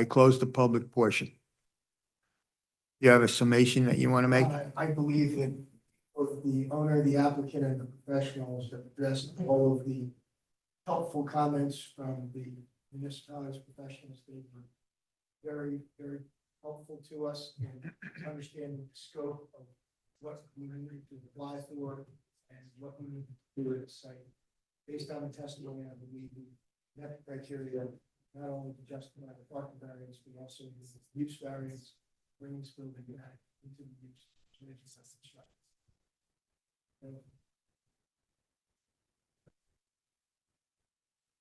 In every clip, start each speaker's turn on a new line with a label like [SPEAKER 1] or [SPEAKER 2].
[SPEAKER 1] I close the public portion. You have a summation that you want to make?
[SPEAKER 2] Uh, I- I believe that both the owner, the applicant, and the professionals have addressed all of the helpful comments from the municipalities, professionals. They were very, very helpful to us in understanding the scope of what we need to apply for and what we need to do at the site. Based on the testimony, I believe we met the criteria, not only to justify the parking variance, but also the use variance, bringing school to back into the use. community center structure. So,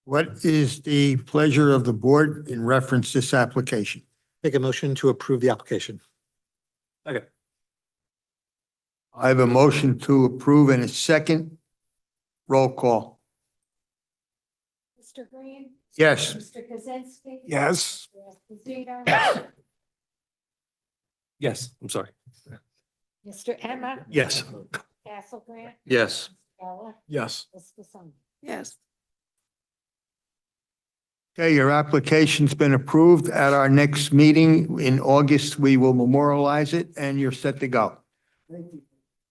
[SPEAKER 1] What is the pleasure of the board in reference this application?
[SPEAKER 3] Make a motion to approve the application.
[SPEAKER 1] I have a motion to approve and a second. Roll call.
[SPEAKER 4] Mr. Green?
[SPEAKER 1] Yes.
[SPEAKER 4] Mr. Kaczynski?
[SPEAKER 5] Yes.
[SPEAKER 4] Mr. Esposito?
[SPEAKER 5] Yes, I'm sorry.
[SPEAKER 4] Mr. Emma?
[SPEAKER 5] Yes.
[SPEAKER 4] Castle Grant?
[SPEAKER 5] Yes.
[SPEAKER 4] Stella?
[SPEAKER 5] Yes.
[SPEAKER 4] Mr. Song?
[SPEAKER 6] yes,
[SPEAKER 1] Okay, your application's been approved. At our next meeting in August, we will memorialize it and you're set to go.
[SPEAKER 2] Thank you.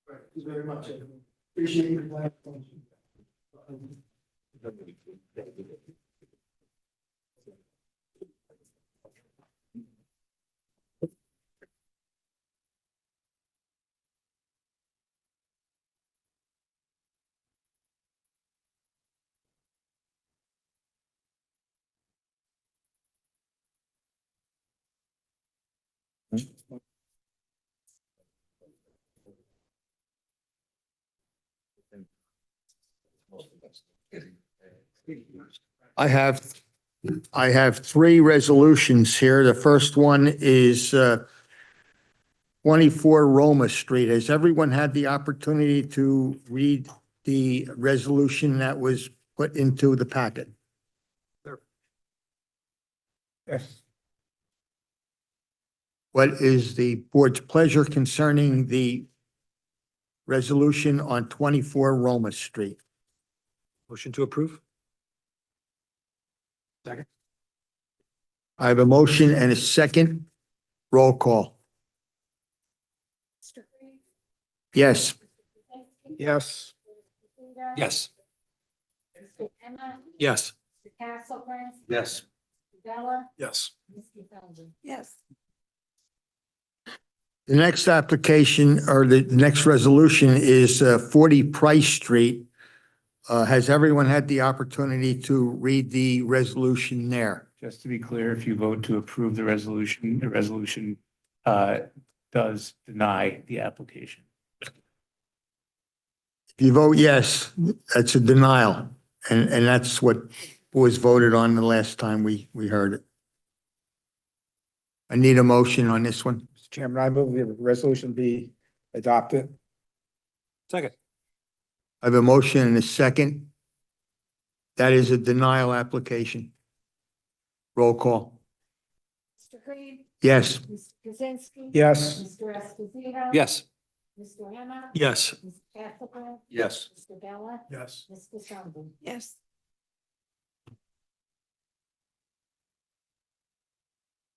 [SPEAKER 2] Thank you very much. everyone. Appreciate your platform.
[SPEAKER 1] I have, I have three resolutions here. The first one is uh, 24 Roma Street. Has everyone had the opportunity to read the resolution that was put into the packet? Yes. What is the board's pleasure concerning the resolution on 24 Roma Street?
[SPEAKER 3] Motion to approve?
[SPEAKER 1] I have a motion and a second. Roll call.
[SPEAKER 4] Mr. Green?
[SPEAKER 1] Yes.
[SPEAKER 4] Kaczynski?
[SPEAKER 3] Yes.
[SPEAKER 4] Esposito?
[SPEAKER 5] Yes.
[SPEAKER 4] Mr. Emma?
[SPEAKER 5] Yes.
[SPEAKER 4] Mr. Castle Grant?
[SPEAKER 5] Yes.
[SPEAKER 4] Stella?
[SPEAKER 5] Yes.
[SPEAKER 4] Mr. Song?
[SPEAKER 6] yes,
[SPEAKER 1] The next application or the next resolution is uh, 40 Price Street. Uh, Has everyone had the opportunity to read the resolution there?
[SPEAKER 7] Just to be clear, if you vote to approve the resolution, the resolution uh, does deny the application.
[SPEAKER 1] If you vote yes, that's a denial. And, and that's what was voted on the last time we, we heard it. I need a motion on this one.
[SPEAKER 8] Mr. Chairman, I move the resolution be adopted.
[SPEAKER 5] Second.
[SPEAKER 1] I have a motion and a second. That is a denial application. Roll call.
[SPEAKER 4] Mr. Green?
[SPEAKER 1] Yes.
[SPEAKER 4] Mr. Kaczynski?
[SPEAKER 8] Yes.
[SPEAKER 4] Mr. Esposito?
[SPEAKER 5] Yes.
[SPEAKER 4] Mr. Emma?
[SPEAKER 5] Yes.
[SPEAKER 4] Mr. Castle Grant?
[SPEAKER 5] Yes.
[SPEAKER 4] Mr. Bella?
[SPEAKER 5] Yes.
[SPEAKER 4] Mr. Song?
[SPEAKER 6] yes.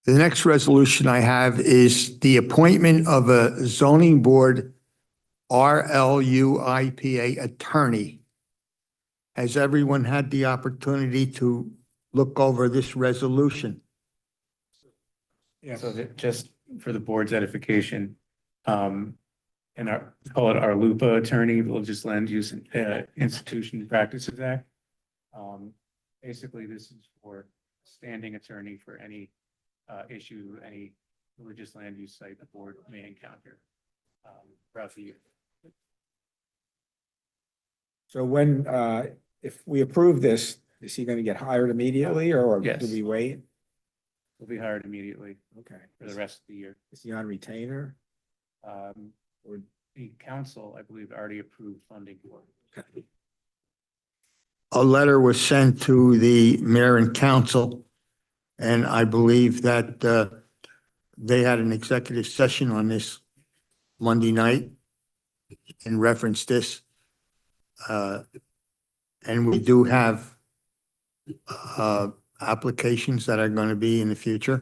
[SPEAKER 1] The next resolution I have is the appointment of a zoning board RLUIPA attorney. Has everyone had the opportunity to look over this resolution?
[SPEAKER 8] Yes.
[SPEAKER 7] So that, just for the board's edification, um, and our, call it our LUPA attorney, Religious Land Use uh, Institution and Practices Act. Um, basically, this is for standing attorney for any, uh, issue, any religious land use site the board may encounter, um, throughout the year.
[SPEAKER 8] So when, uh, if we approve this, is he gonna get hired immediately or
[SPEAKER 7] Yes.
[SPEAKER 8] do we wait?
[SPEAKER 7] Will be hired immediately
[SPEAKER 8] Okay.
[SPEAKER 7] for the rest of the year.
[SPEAKER 8] Is he on retainer?
[SPEAKER 7] Um, or the council, I believe, already approved funding for. it.
[SPEAKER 1] A letter was sent to the mayor and council, and I believe that uh, they had an executive session on this Monday night in reference this. Uh, And we do have uh, applications that are going to be in the future.